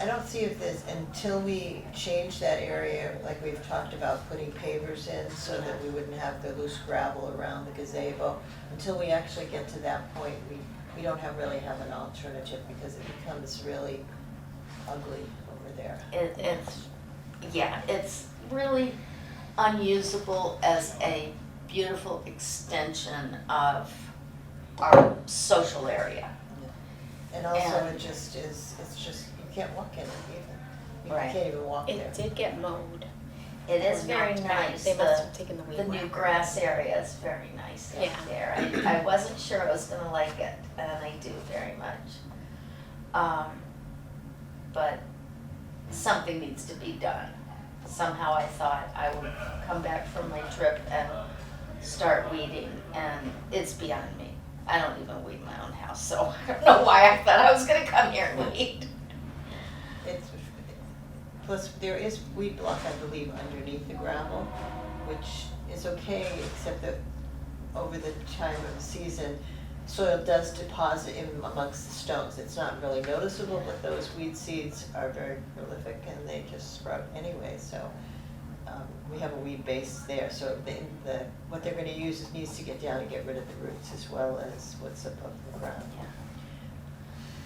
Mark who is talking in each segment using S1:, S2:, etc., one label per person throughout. S1: I don't see if this, until we change that area, like we've talked about putting pavers in so that we wouldn't have the loose gravel around the gazebo, until we actually get to that point, we, we don't have, really have an alternative because it becomes really ugly over there.
S2: It, it's, yeah, it's really unusable as a beautiful extension of our social area.
S1: And also
S2: And-
S1: it just is, it's just, you can't walk in it even.
S2: Right.
S1: You can't even walk there.
S3: It did get mowed.
S2: It is
S3: Or
S2: very
S3: knocked back.
S2: nice,
S3: They must
S2: the,
S3: have taken the weed
S2: the new
S3: whacker.
S2: grass area is very nice up
S3: Yeah.
S2: there. I, I wasn't sure I was gonna like it, and I do very much. Um, but something needs to be done. Somehow I thought I would come back from my trip and start weeding, and it's beyond me. I don't even weed my own house, so I don't know why I thought I was gonna come here and weed.
S1: It's, plus there is weed block, I believe, underneath the gravel, which is okay, except that over the time of season, soil does deposit in amongst the stones. It's not really noticeable, but those weed seeds are very prolific and they just sprout anyway, so. Um, we have a weed base there, so the, the, what they're gonna use is needs to get down and get rid of the roots as well as what's above the ground.
S2: Yeah.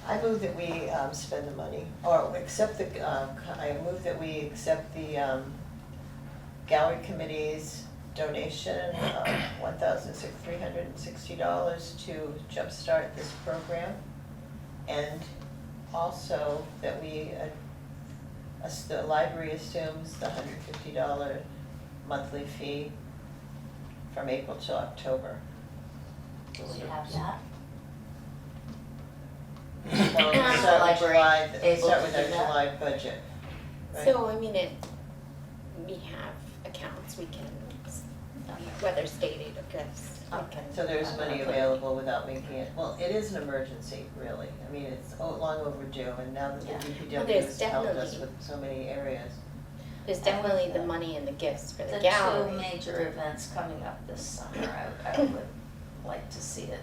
S1: I move that we um, spend the money, or accept the, uh, co- I move that we accept the um, gallery committee's donation of one thousand six, three hundred and sixty dollars to jumpstart this program. And also that we, uh, as the library assumes the hundred fifty dollar monthly fee from April to October.
S2: Do we have that?
S1: So we start
S2: And
S1: with
S2: the library
S1: July,
S2: able
S1: start
S2: to
S1: with our
S2: do that?
S1: July budget, right?
S3: So, I mean, it, we have accounts, we can, um, whether stated or just, we can.
S1: So there's money available without making it, well, it is an emergency, really, I mean, it's o- long overdue, and now that
S2: Yeah.
S1: the DPW
S3: Well, there's
S1: has helped us
S3: definitely-
S1: with so many areas.
S3: There's definitely the money and the gifts for
S2: The
S3: the
S2: two
S3: gallery.
S2: major events coming up this summer, I, I would like to see it,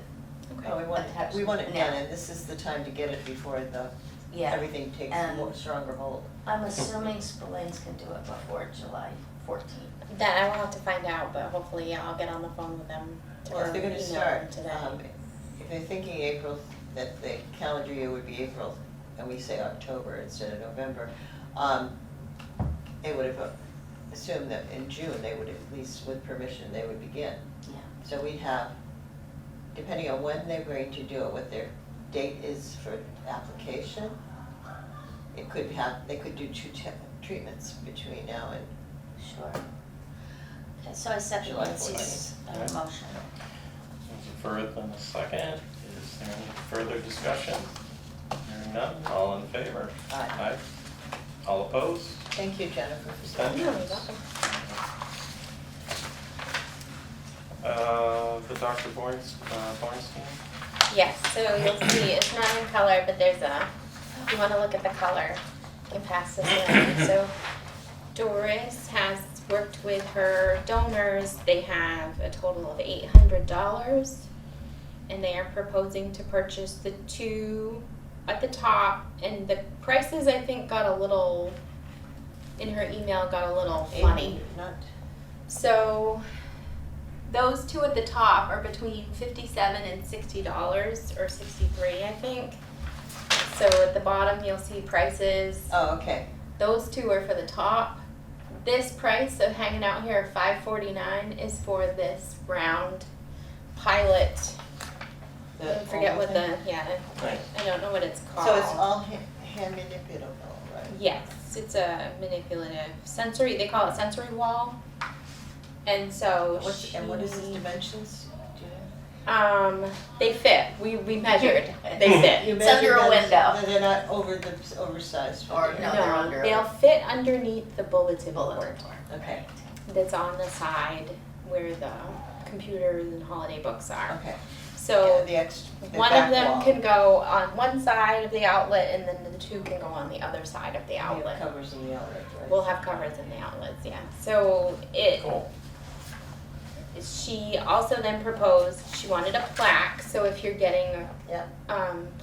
S1: Oh, we want,
S2: Attached
S1: we want it done,
S2: now.
S1: and this is the time to get it before the,
S2: yeah.
S1: everything takes
S2: And-
S1: more, stronger hold.
S2: I'm assuming Spillane's can do it before July fourteenth.
S3: That I will have to find out, but hopefully I'll get on the phone with them
S1: Well,
S3: tomorrow,
S1: if they're
S3: email
S1: gonna
S3: them
S1: start,
S3: today.
S1: um, if they're thinking April, that the calendar year would be April, and we say October instead of November, um, they would have uh, assumed that in June, they would at least, with permission, they would begin.
S2: Yeah.
S1: So we have, depending on when they're going to do it, what their date is for application, it could have, they could do two te- treatments between now and,
S2: Sure. Okay, so I second
S1: July
S2: Lindsay's uh,
S4: Okay.
S2: motion.
S4: There's a first and a second. Is there any further discussion? Hearing none, all in favor?
S1: uh,
S4: Aye. All opposed?
S1: thank you, Jennifer. for saying
S3: No, you're
S4: Abstentions?
S3: welcome.
S4: Uh, the Dr. Born's, uh, Bornstein?
S3: Yes, so you'll see, it's not in color, but there's a, if you wanna look at the color, you can pass this around. So Doris has worked with her donors, they have a total of eight hundred dollars. And they are proposing to purchase the two at the top, and the prices, I think, got a little, in her email, got a little
S1: Eight
S3: funny.
S1: hundred, Not,
S3: So those two at the top are between fifty-seven and sixty dollars, or sixty-three, I think. So at the bottom, you'll see prices.
S1: oh, okay,
S3: Those two are for the top. This price of hanging out here at five forty-nine is for this round pilot.
S1: the
S3: I forget
S1: oval
S3: what
S1: thing?
S3: the yeah,
S4: Right.
S3: I don't know what it's called.
S1: So it's all ha- hand manipulable, right?
S3: Yes, it's a manipulative sensory. They call it sensory wall. And so
S1: What's, and what is its
S3: she-
S1: dimensions? Do you know?
S3: Um, they fit. We we measured. They fit.
S1: You
S2: It's under
S1: measure
S2: a
S1: those-
S2: window.
S1: no, They're not over the, oversized for
S2: Or
S1: the-
S2: No, they're under-
S3: will fit underneath the bulletin board
S2: Bulletin board.
S1: Okay,
S3: that's on the side where the computers and holiday books are.
S1: okay. Yeah,
S3: So
S1: the ex, the
S3: one
S1: back
S3: of them
S1: wall.
S3: can go on one side of the outlet, and then the two can go on the other side of the
S1: We have
S3: outlet.
S1: Covers in the outlet, right?
S3: We'll have covers in the outlets, yeah. So it,
S4: Cool.
S3: she also then proposed, she wanted a plaque, so if you're getting
S1: Yeah.
S3: um,